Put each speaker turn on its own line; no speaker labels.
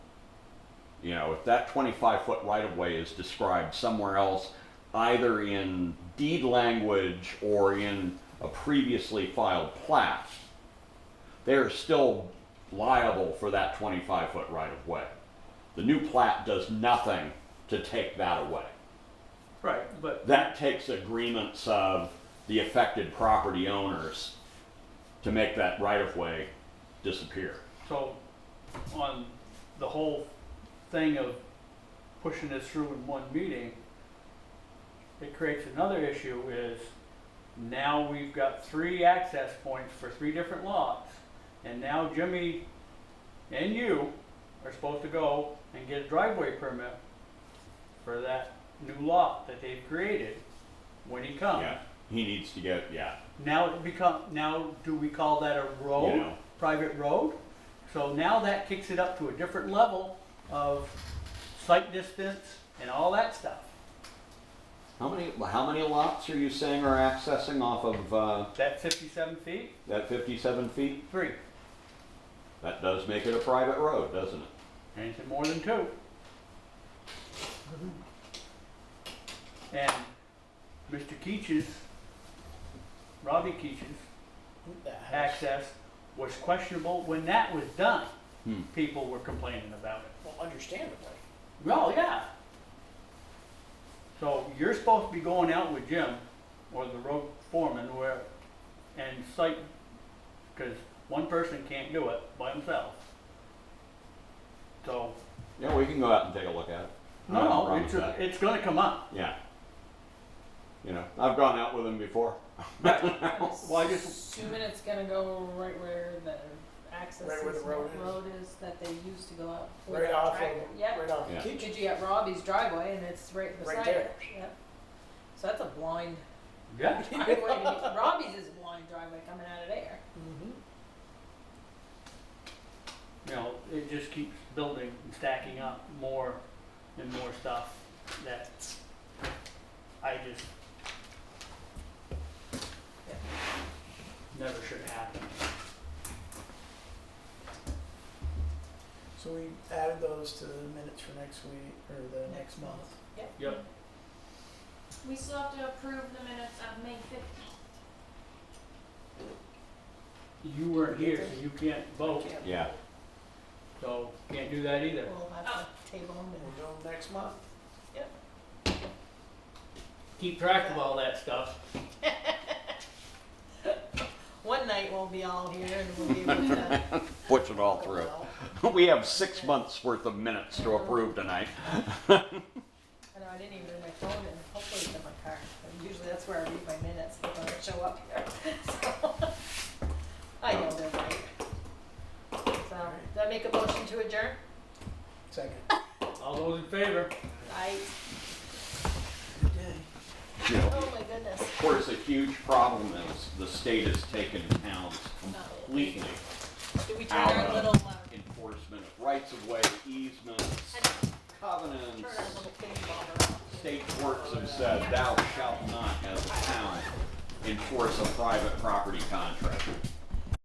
You know, if that twenty-five foot right of way is described somewhere else, either in deed language or in a previously filed plat, they're still liable for that twenty-five foot right of way. The new plat does nothing to take that away.
Right, but
That takes agreements of the affected property owners to make that right of way disappear.
so on the whole thing of pushing this through in one meeting, it creates another issue is now we've got three access points for three different lots. And now Jimmy and you are supposed to go and get a driveway permit for that new lot that they've created when he comes.
Yeah, he needs to get, yeah,
Now it become, now do we call that a road?
Yeah.
Private road? So now that kicks it up to a different level of site distance and all that stuff.
How many, how many lots are you saying are accessing off of uh,
That fifty-seven feet,
that 57 feet?
three,
That does make it a private road, doesn't it?
anything more than two. And Mr. Keach's, Robbie Keach's
Actually,
access was questionable when that was done.
Hmm.
People were complaining about it.
well, understandably.
Well, yeah. So you're supposed to be going out with Jim or the road foreman where, and site, because one person can't do it by himself. So,
Yeah, we can go out and take a look at it. I have
no, no,
problem
it's,
with that.
it's gonna come up.
Yeah. You know, I've gone out with him before.
Well, I just,
Assuming it's gonna go right where the access
Right where the
is,
road
what
is.
road is that they used to go out. with
Right
that
off of,
tractor. Yep,
right off
Yeah.
of
Did
Keach's.
you at Robbie's driveway and it's right
Right
beside
there.
it, yep. So that's a blind
yeah,
driveway, to be- Robbie's is a blind driveway coming out of there.
Mhm.
you know, it just keeps building and stacking up more and more stuff that I just never should happen.
So we added those to the minutes for next week, or the next month.
Yep.
We still have to approve the minutes of May fifteenth.
You weren't here, so you can't vote,
Can't-
Yeah,
so can't do that either.
We'll have to table them
We'll
and
do them next month.
Keep track of all that stuff.
one night we'll be all here and we'll be able to.
push it all
Well,
through. We have six months worth of minutes to approve tonight.
I know, I didn't even bring my phone and hopefully it's in my car. And Usually that's where I read my minutes when I show up here, so. I know they're right. So, did I make a motion to adjourn?
Second.
All those in favor?
I,
Okay.
You know,
oh my goodness.
Of course, a huge problem is the state has taken towns completely
Did we turn
out
our little,
of
uh,
enforcement of rights of way, easements,
I didn't turn our
covenants.
little pig bobber off?
State courts have said thou shalt not as a town enforce a private property contract.